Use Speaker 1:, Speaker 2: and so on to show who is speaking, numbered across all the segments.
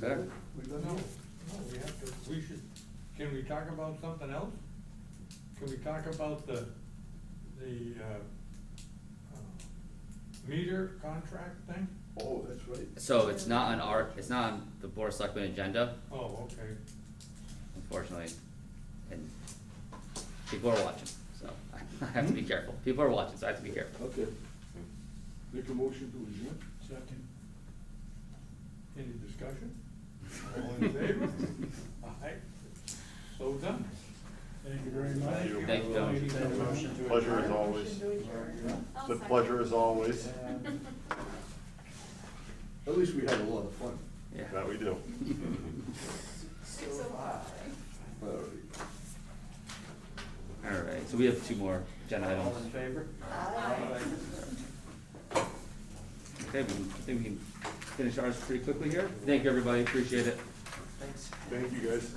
Speaker 1: That,
Speaker 2: We
Speaker 3: No,
Speaker 2: don't
Speaker 3: no,
Speaker 2: know.
Speaker 3: we have to, we should, can we talk about something else? Can we talk about the, the, uh, uh, meter contract thing?
Speaker 2: Oh, that's right.
Speaker 1: so it's not on our, it's not on the board of selectmen agenda,
Speaker 3: Oh, okay,
Speaker 1: unfortunately, and people are watching, so I have to be careful. People are watching, so I have to be careful.
Speaker 2: Okay. Make a motion to adjourn?
Speaker 3: second. Any discussion? All in favor? Aye, so done.
Speaker 4: Thank you very much.
Speaker 5: Thank you.
Speaker 1: Thank you, gentlemen.
Speaker 4: Take a motion to
Speaker 5: Pleasure as
Speaker 4: adjourn.
Speaker 5: always.
Speaker 6: I'll
Speaker 5: It's a
Speaker 6: second.
Speaker 5: pleasure as always.
Speaker 4: And
Speaker 2: At least we had a lot of fun.
Speaker 1: Yeah.
Speaker 5: That we do.
Speaker 6: Six oh five.
Speaker 2: All right.
Speaker 1: Alright, so we have two more agenda
Speaker 4: All in
Speaker 1: items.
Speaker 4: favor?
Speaker 1: Okay, we, I think we can finish ours pretty quickly here. Thank you, everybody, appreciate it.
Speaker 4: Thanks.
Speaker 5: Thank you, guys.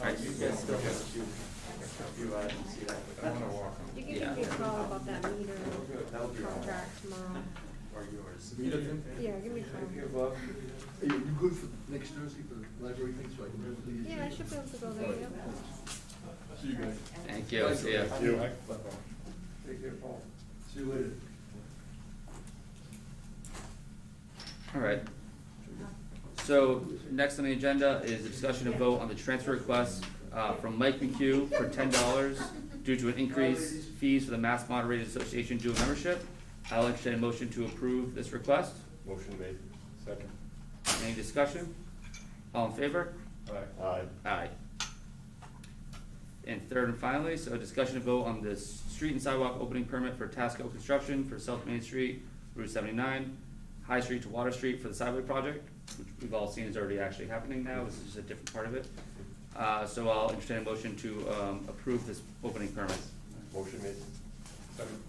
Speaker 1: Alright,
Speaker 4: You guys still have a few, a few items, yeah.
Speaker 5: I wanna walk home.
Speaker 7: You can give me a call about that meter contract tomorrow.
Speaker 4: Or yours.
Speaker 7: Yeah, give me a call.
Speaker 4: Above.
Speaker 2: Hey, are you good for next Thursday for the library thing, so I can remember the.
Speaker 7: Yeah, I should be able to go there, yeah.
Speaker 2: See you guys.
Speaker 1: Thank you, see ya.
Speaker 5: You.
Speaker 2: Take care, Paul. See you later.
Speaker 1: Alright. So, next on the agenda is a discussion of vote on the transfer request, uh, from Mike McHugh for ten dollars due to an increase fees for the Mass Moderated Association dual membership. I'll entertain a motion to approve this request.
Speaker 5: Motion made. Second.
Speaker 1: Any discussion? All in favor?
Speaker 5: Aye.
Speaker 1: Aye. And third and finally, so discussion and vote on the s- street and sidewalk opening permit for Tasco Construction for South Main Street, Route seventy-nine, High Street to Water Street for the sidewalk project, which we've all seen is already actually happening now, this is just a different part of it. Uh, so I'll entertain a motion to, um, approve this opening permit.
Speaker 5: Motion made. Second.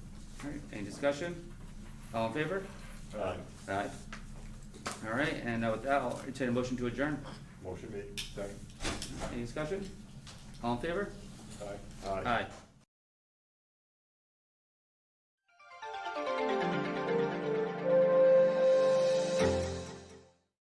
Speaker 1: Alright, any discussion? All in favor?
Speaker 5: Aye.
Speaker 1: Aye. Alright, and uh, with that, I'll entertain a motion to adjourn.
Speaker 5: Motion made. Second.
Speaker 1: Any discussion? All in favor?
Speaker 5: Aye.
Speaker 1: Aye.